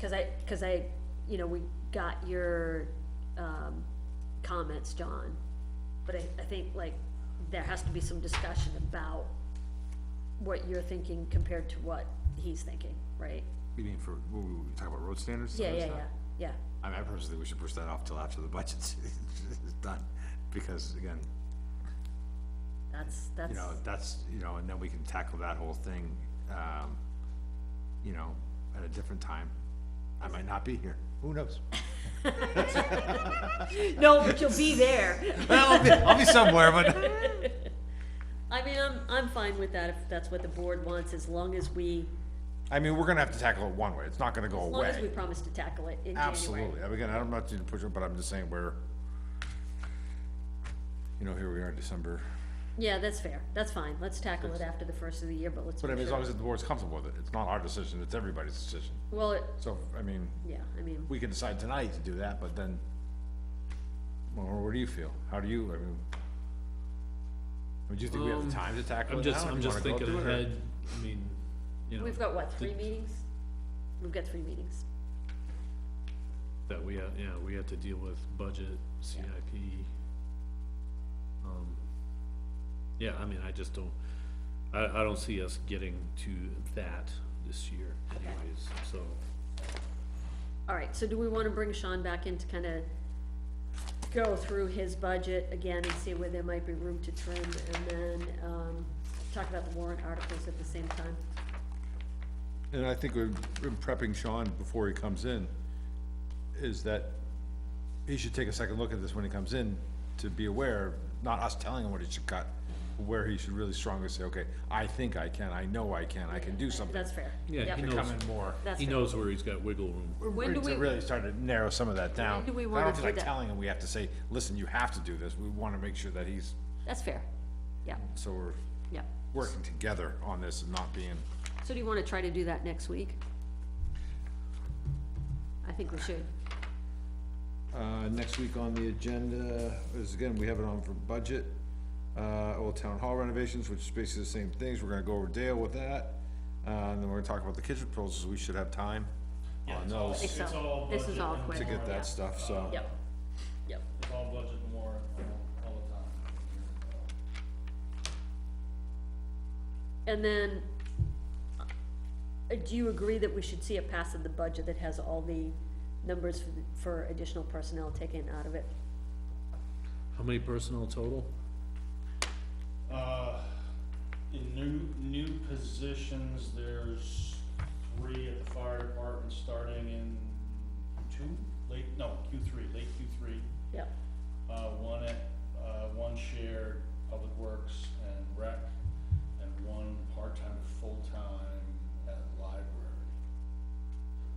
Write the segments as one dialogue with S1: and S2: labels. S1: Cause I, cause I, you know, we got your, um, comments, John, but I, I think like, there has to be some discussion about what you're thinking compared to what he's thinking, right?
S2: You mean for, what were we talking about road standards?
S1: Yeah, yeah, yeah,
S2: Sorry, sorry.
S1: yeah,
S2: I mean, I personally think we should push that off till after the budget's is done, because again,
S1: that's, that's,
S2: you know, that's, you know, and then we can tackle that whole thing, um, you know, at a different time. I might not be here, who knows?
S1: no, but you'll be there.
S2: I'll be, I'll be somewhere, but.
S1: I mean, I'm, I'm fine with that if that's what the board wants, as long as we,
S2: I mean, we're gonna have to tackle it one way, it's not gonna go
S1: as long as we promise to tackle it in January.
S2: Absolutely, I mean, again, I'm not to push it, but I'm just saying we're, you know, here we are in December.
S1: Yeah, that's fair, that's fine, let's tackle it after the first of the year, but let's.
S2: But I
S1: make
S2: mean, as
S1: sure-
S2: long as the board's comfortable with it, it's not our decision, it's everybody's decision.
S1: Well, it-
S2: So, I mean,
S1: yeah, I mean,
S2: we can decide tonight to do that, but then, well, what do you feel? How do you, I mean, I mean, do you think we have the time to tackle
S3: Um,
S2: it
S3: I'm
S2: now?
S3: just,
S2: Do
S3: I'm
S2: you
S3: just
S2: wanna go
S3: thinking
S2: through it, or-
S3: ahead, I mean, you know,
S1: we've got what, three meetings? We've got three meetings,
S3: that we have, yeah, we have to deal with budget, CIP. Um, Yeah, I mean, I just don't, I, I don't see us getting to that this year
S1: Okay.
S3: anyways, so.
S1: all right, so do we wanna bring Sean back in to kinda go through his budget again and see where there might be room to trim, and then, um, talk about the warrant articles at the same time?
S4: And I think we're we're prepping Sean before he comes in, is that he should take a second look at this when he comes in to be aware, not us telling him what he should cut, where he should really strongly say, okay, I think I can, I know I can, I can do something.
S1: That's fair.
S3: Yeah,
S1: Yep.
S3: he
S4: Come
S3: knows,
S4: in more.
S1: That's
S3: he
S1: fair.
S3: knows where he's got wiggle room.
S1: When do
S4: To
S1: we-
S4: really start to narrow some of that down.
S1: do we
S4: But
S1: wanna
S4: I don't
S1: do
S4: feel like
S1: that?
S4: telling him we have to say, listen, you have to do this, we wanna make sure that he's,
S1: That's fair, yeah,
S4: so we're
S1: yeah.
S4: working together on this and not being,
S1: So do you wanna try to do that next week? I think we should.
S4: Uh, next week on the agenda is, again, we have it on for budget, uh, Old Town Hall renovations, which is basically the same things, we're gonna go over Dale with that. Uh, and then we're gonna talk about the kitchen proposals, we should have time
S1: I
S4: on
S1: think
S4: those
S1: so.
S5: all
S1: This is
S5: budget
S1: all
S5: and
S1: quick.
S4: to get
S1: yeah.
S4: that stuff, so.
S1: Yep, yep,
S5: It's all budget and more all the time.
S1: and then, uh, do you agree that we should see a pass of the budget that has all the numbers for, the- for additional personnel taken out of it?
S3: How many personnel total?
S5: Uh, in new, new positions, there's three at the fire department starting in Q two, late, no, Q three, late Q three.
S1: Yep,
S5: Uh, one at, uh, one shared public works and rec, and one part-time to full-time at library.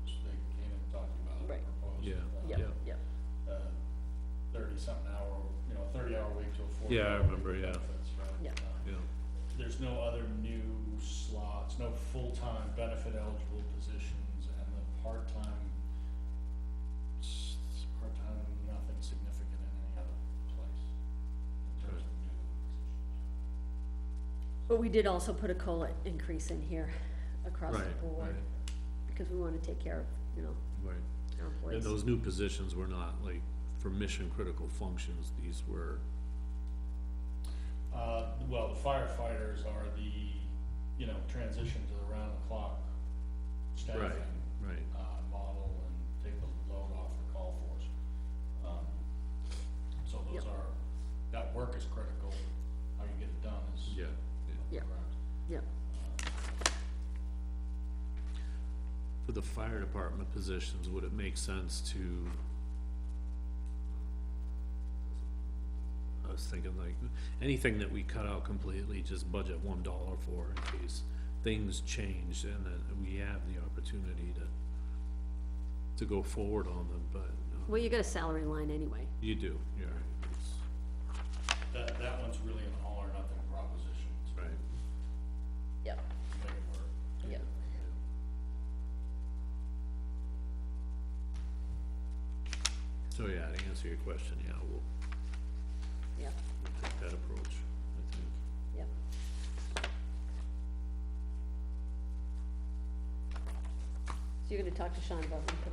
S5: Which they came and talked about,
S1: Right.
S5: proposed.
S3: Yeah,
S5: uh,
S1: yep,
S3: Yeah.
S1: yep,
S5: thirty-something hour, you know, thirty-hour week Um, to a forty.
S3: Yeah, I remember, yeah.
S1: Yeah.
S3: Yeah,
S5: There's no other new slots, no full-time benefit eligible positions, and the part-time, s- part-time, nothing significant in any other place. in terms of new positions.
S1: but we did also put a COLA increase in here across the
S3: Right,
S1: board, because we wanna take care of, you know,
S3: right.
S1: our
S3: And
S1: employees.
S3: those new positions were not like for mission critical functions, these were,
S5: Uh, well, the firefighters are the, you know, transition to the round-the-clock
S3: right,
S5: staffing.
S3: right.
S5: uh, model and take the load off the call force. Um, So those
S1: Yep.
S5: are, that work is critical, how you get it done is.
S3: Yeah, yeah.
S1: Yep.
S5: correct.
S1: Yep,
S3: For the fire department positions, would it make sense to? I was thinking like, anything that we cut out completely, just budget one dollar for in case things change and that we have the opportunity to, to go forward on them, but uh,
S1: well, you got a salary line anyway,
S3: you do, you're right. it's-
S5: That, that one's really an all or nothing proposition to
S3: Right.
S1: yep,
S5: make it work.
S1: yep.
S3: So yeah, to answer your question, yeah, we'll
S1: Yep,
S3: we'll take that approach, I think.
S1: yep. you're gonna talk to Sean about them